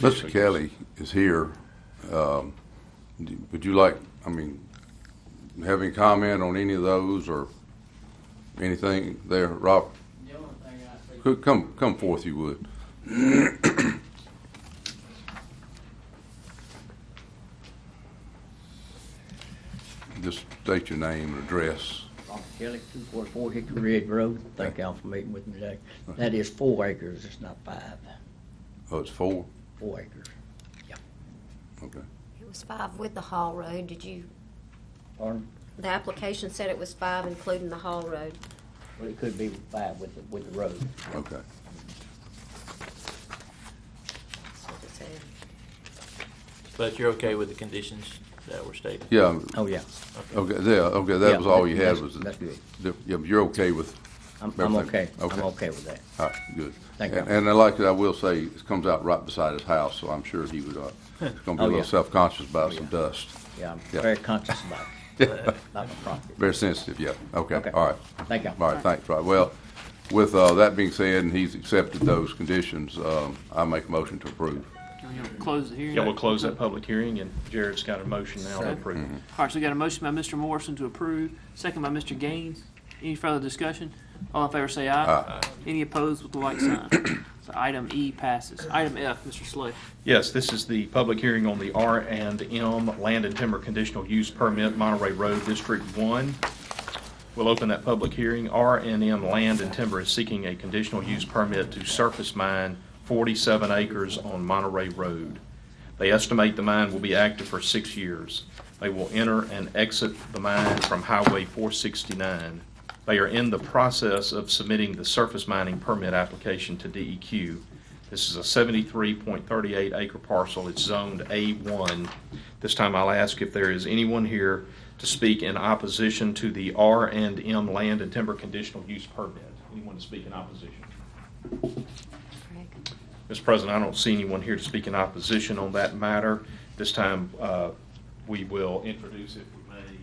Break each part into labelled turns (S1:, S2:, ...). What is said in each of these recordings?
S1: Mr. Kelly is here. Um, d- Would you like, I mean, having comment on any of those or anything there, Rob?
S2: The only thing I see,
S1: Could come, come forth, you would. Just state your name and address.
S2: Robert Kelly, two four four Hickory Ridge Road, thank y'all for meeting with me today. That is four acres, it's not five,
S1: Oh, it's four?
S2: four acres.
S1: Okay.
S3: It was five with the Hall Road, did you,
S2: Pardon?
S3: the application said it was five including the Hall Road.
S2: Well, it could be five with, the with the road.
S1: Okay.
S3: That's what it said.
S4: But you're okay with the conditions that were stated?
S1: Yeah,
S2: Oh, yeah.
S1: okay, there, okay,
S2: Yeah,
S1: that was all you had
S2: that's-
S1: was,
S2: That's good.
S1: the- yeah, you're okay with
S2: I'm, I'm okay.
S1: Everything.
S2: I'm
S1: Okay.
S2: okay with that.
S1: All right, good.
S2: Thank
S1: And-
S2: you.
S1: And I like it, I will say, it comes out right beside his house, so I'm sure he would, uh, he's gonna be a
S2: Oh,
S1: little
S2: yeah.
S1: self-conscious about
S2: Oh,
S1: some
S2: yeah.
S1: dust.
S2: Yeah, I'm
S1: Yeah.
S2: very conscious about it, about my property.
S1: Very sensitive, yeah, okay,
S2: Okay.
S1: all right.
S2: Thank you.
S1: All right, thanks, Rob. Well, with, uh, that being said, and he's accepted those conditions, um, I make a motion to approve.
S5: You wanna Close the hearing.
S6: Yeah, we'll close that public hearing, and Jared's got a motion now to approve.
S5: All right, so we got a motion by Mr. Morrison to approve, second by Mr. Gaines. Any further discussion? All in favor say aye. Any opposed with the like sign. So item E passes. Item F, Mr. Slay.
S6: Yes, this is the public hearing on the R and M Land and Timber Conditional Use Permit, Monterey Road, District One. We'll open that public hearing. R and M Land and Timber is seeking a conditional use permit to surface mine forty-seven acres on Monterey Road. They estimate the mine will be active for six years. They will enter and exit the mine from Highway 469. They are in the process of submitting the surface mining permit application to E DEQ. This is a 73.38 acre parcel. It's zoned A1. This time I'll ask if there is anyone here to speak in opposition to the R and M Land and Timber Conditional Use Permit. Anyone to speak in opposition?
S3: Craig.
S6: Mr. President, I don't see anyone here to speak in opposition on that matter. This time, uh, we will introduce, if we may,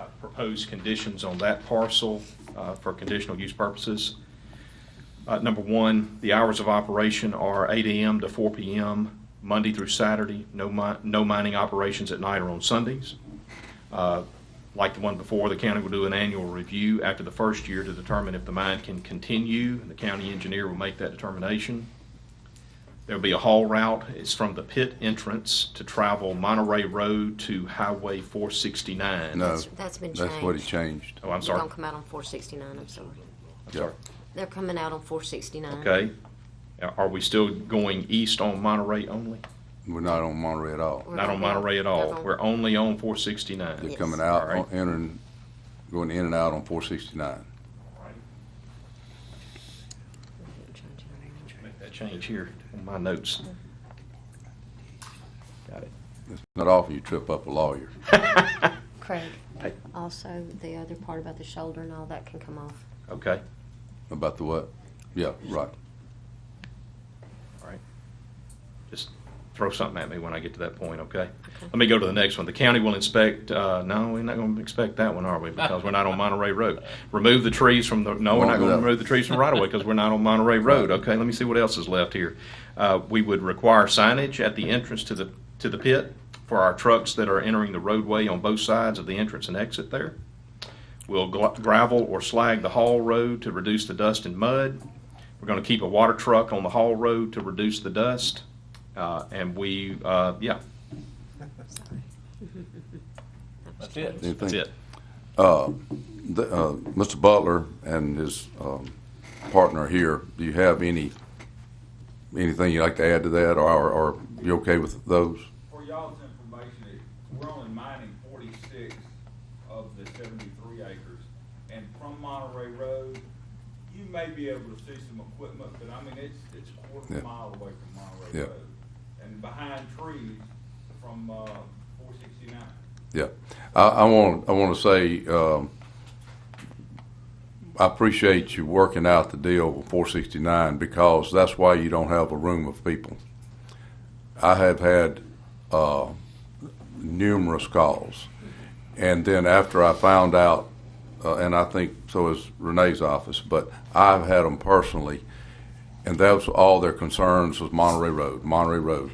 S6: uh, proposed conditions on that parcel uh, for conditional use purposes. Uh, Number one, the hours of operation are 8 AM to 4 PM, Monday through Saturday. No mi- no mining operations at night or on Sundays. Uh, Like the one before, the county will do an annual review after the first year to determine if the mine can continue. and The county engineer will make that determination. There'll be a haul route. It's from the pit entrance to travel Monterey Road to Highway 469.
S1: No,
S3: That's- That's been changed.
S1: that's what he changed.
S6: Oh, I'm
S3: They're
S6: sorry.
S3: gonna come out on four sixty-nine, I'm sorry.
S6: I'm sorry.
S3: They're coming out on four sixty-nine.
S6: Okay. Now, Are we still going east on Monterey only?
S1: We're not on Monterey at all.
S3: We're
S6: Not on
S3: gonna-
S6: Monterey at
S3: they're
S6: all.
S3: gonna-
S6: We're only on 469.
S1: They're
S3: Yes.
S1: coming out,
S6: All right.
S1: on- entering, going in and out on four sixty-nine.
S6: Make that change here on my notes. Mm-hmm. Got it.
S1: It's not often you trip up a lawyer.
S3: Craig,
S6: Hey.
S3: also the other part about the shoulder and all that can come off.
S6: Okay.
S1: About the what? Yeah, right.
S6: All right. Just throw something at me when I get to that point, okay? Let me go to the next one. The county will inspect, uh, no, we're not gonna inspect that one, are we? Because we're not on Monterey Road. Remove the trees from the, no, we're
S1: Won't
S6: not
S1: do
S6: gonna
S1: that.
S6: remove the trees from right away because we're not on Monterey Road, okay? Let me see what else is left here. Uh, we would require signage at the entrance to the, to the pit for our trucks that are entering the roadway on both sides of the entrance and exit there. We'll gla- gravel or slag the haul road to reduce the dust and mud. We're going to keep a water truck on the haul road to reduce the dust. Uh, And we, uh, yeah,
S4: That's it.
S1: Anything?
S6: that's it.
S1: The, uh, Mr. Butler and his um, partner here, do you have any, anything you'd like to add to that, or or- or you okay with those?
S7: For y'all's information, it- we're only mining forty-six of the seventy-three acres. And from Monterey Road, you may be able to see some equipment, but I mean, it's, it's a
S1: Yeah.
S7: quarter mile away from
S1: Yeah.
S7: Monterey Road. And behind trees from, uh, four sixty-nine.
S1: Yeah. I, I want, I want to say, um, I appreciate you working out the deal with four sixty-nine because that's why you don't have a room of people. I have had, uh, numerous calls. And then after I found out, uh, and I think so is Renee's office, but I've had them personally And that was all their concerns was Monterey Road, Monterey Road.